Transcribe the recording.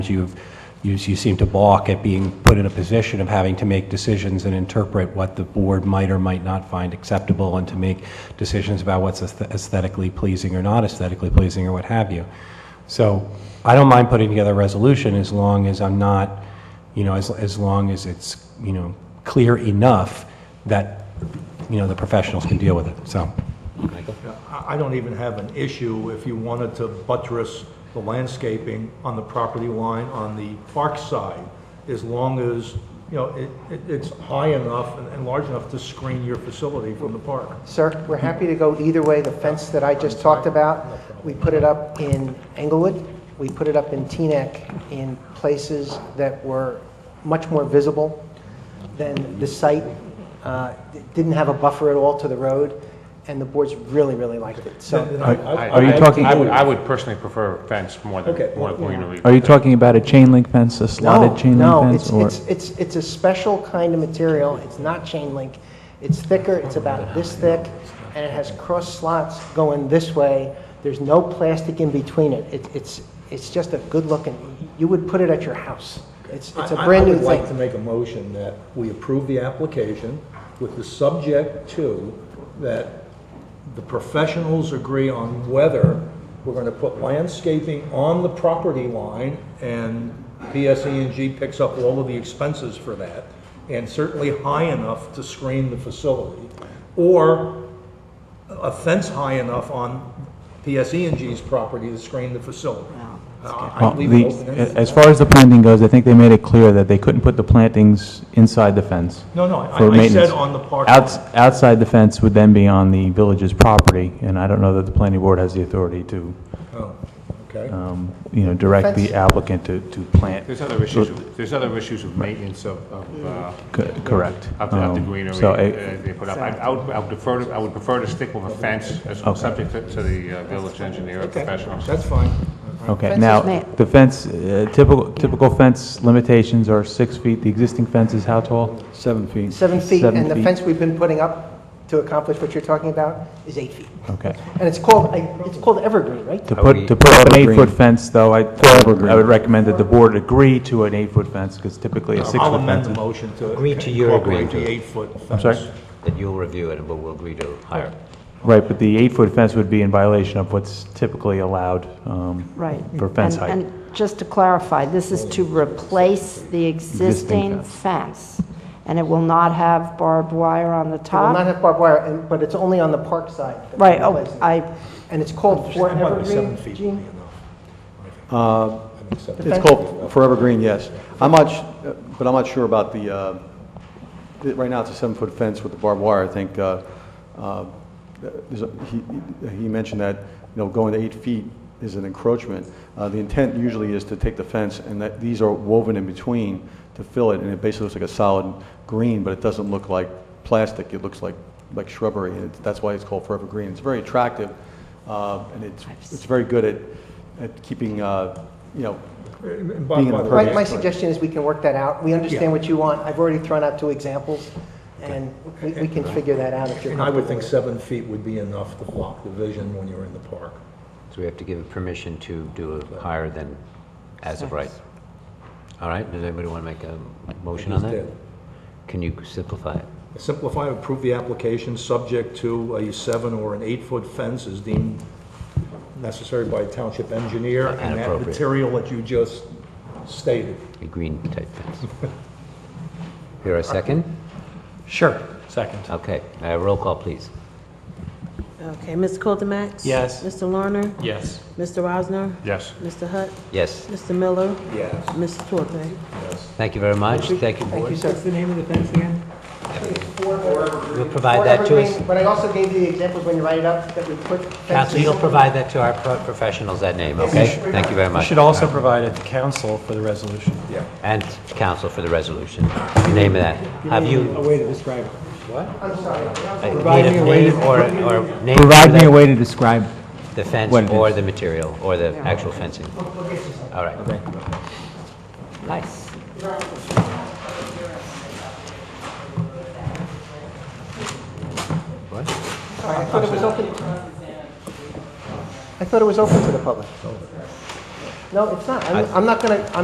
You've, you you seem to balk at being put in a position of having to make decisions and interpret what the board might or might not find acceptable and to make decisions about what's aesthe- aesthetically pleasing or not aesthetically pleasing or what have you. So I don't mind putting together a resolution as long as I'm not, you know, as, as long as it's, you know, clear enough that, you know, the professionals can deal with it, so. I I don't even have an issue if you wanted to buttress the landscaping on the property line on the park side, as long as, you know, it, it- it's high enough and- and large enough to screen your facility from the park. Sir, we're happy to go either way. The fence that I just talked about, we put it up in Englewood, we put it up in Teaneck, in places that were much more visible than the site, uh, it didn't have a buffer at all to the road, and the boards really, really liked it. So, Then I- I- Are you talking- I would, I would personally prefer a fence more than, Okay. more than greenery. Are you talking about a chain link fence, a no, slotted chain no, link fence? it's, or it's, it's it's a special kind of material, it's not chain link. It's thicker, it's about this thick, and it has cross slots going this way. There's no plastic in between it. It- It's, it's just a good looking, you would put it at your house. It's, it's a I- I- brand new I would like to thing. make a motion that we approve the application with the subject to that the professionals agree on whether we're going to put landscaping on the property line and PSE&G picks up all of the expenses for that, and certainly high enough to screen the facility, or a fence high enough on PSE&G's property to screen the facility. Uh, I- I Well, leave it the- open-ended. As far as the planting goes, I think they made it clear that they couldn't put the plantings inside the fence. No, no, I- for I said maintenance. on the park. Outs- Outside the fence would then be on the village's property, and I don't know that the planning board has the authority to, Oh, okay. um, you know, direct the Fence. applicant to, to plant. There's other issues, with- there's other issues with maintenance of, of, uh, Co- Correct. of the- of the Um, greenery So, uh, I- they put up. I I would, I would prefer, to- I would prefer to stick with a fence as subject to- to the uh, village engineer or Okay, professionals. That's fine. eh, okay, Fence now, is made. the fence, uh, typical, typical fence limitations are six feet. The existing fence is how tall? Seven feet. Seven feet, seven and the feet. fence we've been putting up to accomplish what you're talking about is eight feet. Okay. And it's called, I- it's called evergreen, right? To Are put, we- to put up an Evergreen. eight-foot fence, though, I, I would Evergreen. recommend that the board agree to an eight-foot fence, because typically a I'll six-foot amend fence the is... motion to Agree to your incorporate agreement. the eight-foot fence. sorry? That you'll review it, but we'll agree to higher. Right, but the eight-foot fence would be in violation of what's typically allowed um, Right. for fence And- height. And just to clarify, this is to replace the existing fence, and it will not have barbed wire on the It will not top? have barbed wire, and- but it's only on the park side. that we're Right, oh, replacing it. I, And it's called for That might be seven evergreen, feet would be Gene? enough. I think seven It's called Forever Green, yes. I'm not, sh- but I'm not sure about the, uh, the- right now it's a seven-foot fence with the barbed wire. I think uh, uh, there's a- he he mentioned that, you know, going to eight feet is an encroachment. Uh, The intent usually is to take the fence, and that these are woven in between to fill it, and it basically looks like a solid green, but it doesn't look like plastic. It looks like, like shrubbery, and it's- that's why it's called Forever Green. It's very attractive, uh, and it's, it's very good at, at keeping, uh, you know, And Uh, Being by- in by the the purview. My, way, my suggestion is we can work that out. We Yeah. understand what you want. I've already thrown out two examples, and we, we can figure that out if you're And I would comfortable think with it. seven feet would be enough to block the vision when you're in the park. So we have to give it permission to do a higher than as of right. All right, does anybody want to make a motion on Just that? did. Can you simplify it? Simplify, approve the application, subject to a seven or an eight-foot fence is deemed necessary by township engineer and that appropriate. material that you just stated. A green type fence? Here a second? Sure, second. Okay, uh, roll call, please. Okay, Ms. Coldimax? Yes. Mr. Lerner? Yes. Mr. Rosner? Yes. Mr. Hutt? Yes, Mr. Miller? Yes. Mrs. Torpe? thank you very much, thank you, Thank you, board. sir. You'll provide that to us? Evergreen, But I also gave you the examples when you write it up that we put. Council, fences you'll in. provide that to our pro- professionals, that name, okay? Thank you very You much. should also provide it to council for the resolution. And counsel for the resolution. Name of that. Have you? A way to describe it. What? I'm sorry. Need a name or, or name. Provide for me that- a way to describe The fence What it or is. the material, or the actual fencing? All right. Nice. What? All right, I thought it was open. I thought it was open to the public. No, it's not. I'm, I'm not gonna, I'm